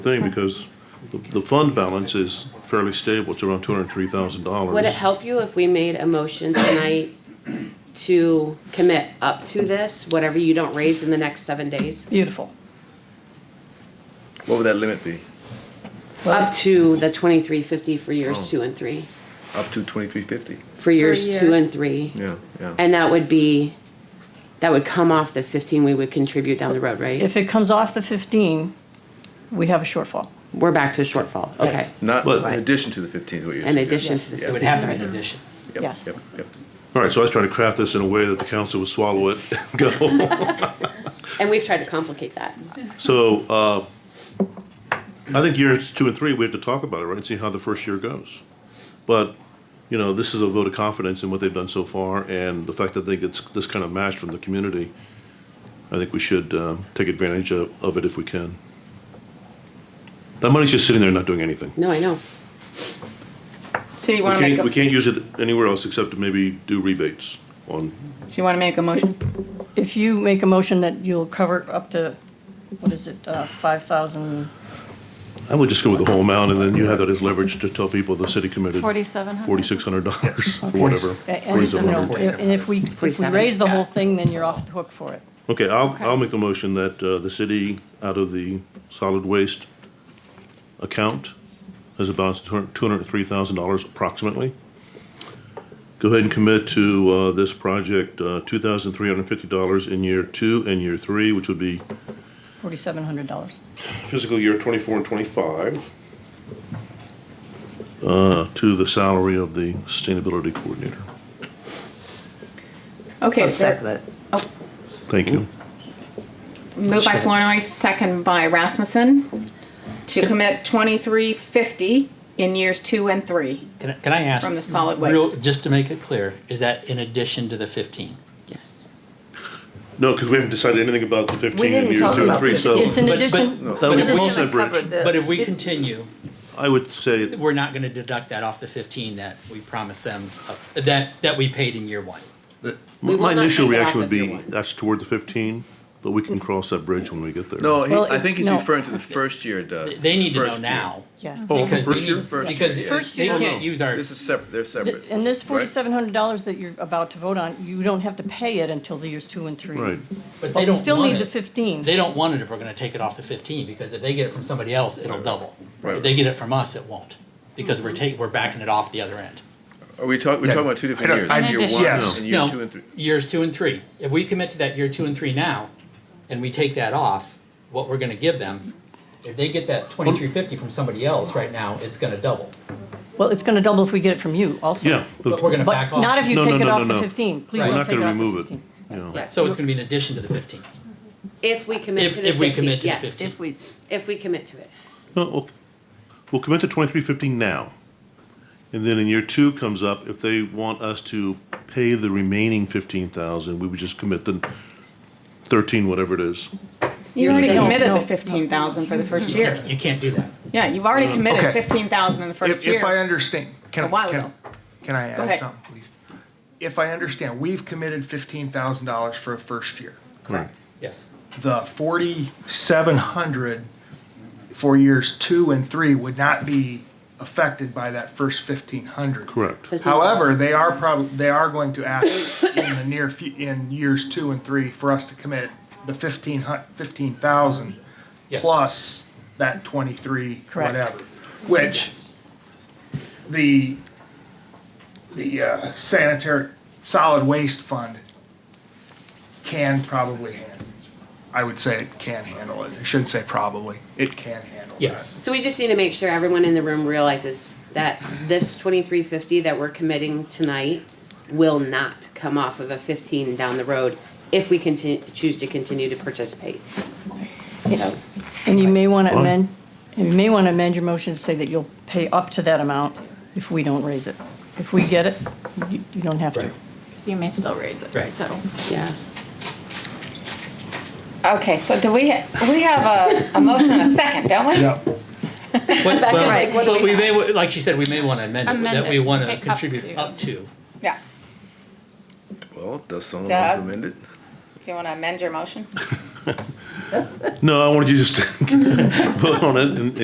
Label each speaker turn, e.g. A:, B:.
A: thing because the, the fund balance is fairly stable. It's around two hundred and three thousand
B: Would it
A: dollars.
B: help you if we made a motion tonight to commit up to this, whatever you don't raise in the next seven days?
C: Beautiful.
D: What would that limit be?
B: Up to the twenty-three fifty for
E: Oh.
B: years two and three,
D: Up to twenty-three fifty?
B: for years
C: year.
B: two and three.
D: Yeah, yeah.
B: And that would be, that would come off the fifteen we would contribute down the road, right?
C: If it comes off the 15, we have a shortfall.
B: We're back to shortfall, okay.
E: Yes.
D: Not
A: But-
D: in addition to the fifteen is what you're
B: In
D: suggesting?
B: addition to the
D: Yeah.
E: It would
B: fifteen,
E: have to be
B: sorry.
C: Mm-hmm.
E: an addition.
D: Yep,
C: Yes.
D: Yep, yep.
A: All right, so I was trying to craft this in a way that the council would swallow it, and go.
B: And we've tried to complicate that.
A: So, uh, I think years two and three, we have to talk about it, right, and see how the first year goes. But, you know, this is a vote of confidence in what they've done so far and the fact that they get this kind of match from the community. I think we should, um, take advantage of, of it if we can. That money's just sitting there not doing anything.
B: No, I know.
F: So you
A: We
F: want to make
A: can't, we
F: a,
A: can't use it anywhere else except to maybe do rebates on,
F: so you want to make a motion?
C: If you make a motion that you'll cover up to, what is it, uh, 5,000?
A: I would just go with the whole amount, and then you have that as leverage to tell people the city committed.
F: Forty-seven hundred.
A: Forty-six hundred dollars, or whatever.
C: And, you know,
A: 4,700.
C: and if we, if we
B: 47.
C: raise the whole thing, then you're off the hook for it.
A: Okay, I'll, I'll make the motion that uh, the city, out of the solid waste account, has a balance of two hundred and three thousand dollars approximately. Go ahead and commit to uh, this project, uh, two thousand three hundred and fifty dollars in year two and year three, which would be
C: $4,700.
A: fiscal year twenty-four and twenty-five. Uh, to the salary of the sustainability coordinator.
F: Okay, so
E: it.
A: Thank you.
F: moved by Flournoy, second by Rasmussen, to commit twenty-three fifty in years two and three.
E: Can I- can I ask?
F: From the solid
E: real-
F: waste.
E: Just to make it clear, is that in addition to the 15?
B: Yes.
A: No, because we haven't decided anything about the fifteen and
G: didn't
A: years
G: talk
A: two and
G: about
A: three,
G: this.
A: so.
C: It's an
E: But-
C: addition,
E: but-
C: it's
A: That
C: an
A: would
G: It's
A: close
C: addition-
A: that
G: gonna cover
A: bridge.
G: this.
E: But if we continue,
A: I would say,
E: we're not going to deduct that off the 15 that we promised them, uh, that, that we paid in year one.
A: my-
B: will
A: my
B: not
A: initial
B: take it off
A: reaction would
B: of your
A: be,
B: one.
A: that's toward the fifteen, but we can cross that bridge when we get there.
D: No, he-
C: Well,
D: I
C: it-
D: think he's
C: no.
D: referring to the first year, Doug.
E: They need to know
D: First year.
E: now.
C: yeah.
A: Oh,
E: because
A: first
E: they
A: year?
E: need-
D: First
E: Because
D: year, yeah.
C: First
E: they
C: year.
E: can't use our,
D: This is separate, they're separate.
C: And this
D: right?
C: $4,700 that you're about to vote on, you don't have to pay it until the years two and three.
A: Right.
E: but they
C: But we
E: don't
C: still
E: want
C: need the
E: it.
C: 15.
E: They don't want it if we're going to take it off the 15, because if they get it from somebody else, it'll double.
D: Right.
E: If they get it from us, it won't, because we're
C: Mm-hmm.
E: taking, we're backing it off the other end.
D: Are we talking, we're talking about two different years?
F: I-
D: Year one
H: Yes.
D: and
E: No,
D: year two and three.
E: Years two and three. If we commit to that year two and three now, and we take that off, what we're gonna give them, if they get that twenty-three fifty from somebody else right now, it's gonna double.
C: Well, it's going to double if we get it from you also.
A: Yeah.
E: But we're gonna
C: But
E: back off.
C: not if you
A: No, no,
C: take it
A: no,
C: off
A: no,
C: the
A: no.
C: 15. Please
E: Right.
A: We're
C: don't
A: not
C: take it
A: gonna
C: off
A: remove
C: the
A: it,
C: 15.
A: you know.
B: Yeah.
E: So it's gonna be in addition to the fifteen.
B: If we commit
E: If-
B: to the
E: if we
B: fifteen,
E: commit to the
B: yes.
E: 15.
G: If we,
B: If we commit to it.
A: No, we'll, we'll commit to twenty-three fifty now. And then in year two comes up, if they want us to pay the remaining fifteen thousand, we would just commit the thirteen, whatever it is.
F: You already
C: No,
F: committed
C: no,
F: the
C: no.
F: fifteen thousand for the first year.
E: You can't do that.
F: Yeah, you've already committed
H: okay.
F: fifteen thousand in the first
H: If, if I
F: year.
H: understand,
F: A
H: can,
F: while ago.
H: can, can I
F: ahead.
H: add something, please? If I understand, we've committed fifteen thousand dollars for a first year.
A: Correct.
E: Yes.
H: The forty-seven hundred for years two and three would not be affected by that first fifteen hundred.
A: Correct.
H: However, they are probably, they are going to ask in the near, fu- in years two and three for us to commit the fifteen hun, fifteen thousand
E: Yes.
H: plus that twenty-three,
C: Correct.
H: whatever. Which the, the uh, sanitary, solid waste fund can probably handle. I would say it can handle it. I shouldn't say probably. It can handle that.
E: Yes.
B: So we just need to make sure everyone in the room realizes that this twenty-three fifty that we're committing tonight will not come off of a fifteen down the road if we continue, choose to continue to participate. So,
C: And you may want to
A: Well-
C: amend, and you may want to amend your motion to say that you'll pay up to that amount if we don't raise it. If we get it, you you don't have to.
E: Right.
G: you may still raise it,
E: Right.
G: so.
B: yeah.
F: Okay, so do we, we have a, a motion and a second, don't we?
H: Yep.
E: But,
G: like,
E: but,
G: what do
E: but
G: we
E: we may, like she said, we may wanna amend it,
G: Amend
E: that we
G: it to
E: wanna
G: pick up
E: contribute
G: to.
E: up to.
F: Yeah.
D: Well, does someone
F: Doug?
D: recommend it?
F: Do you want to amend your motion?
A: No, I wanted you just to vote on it and,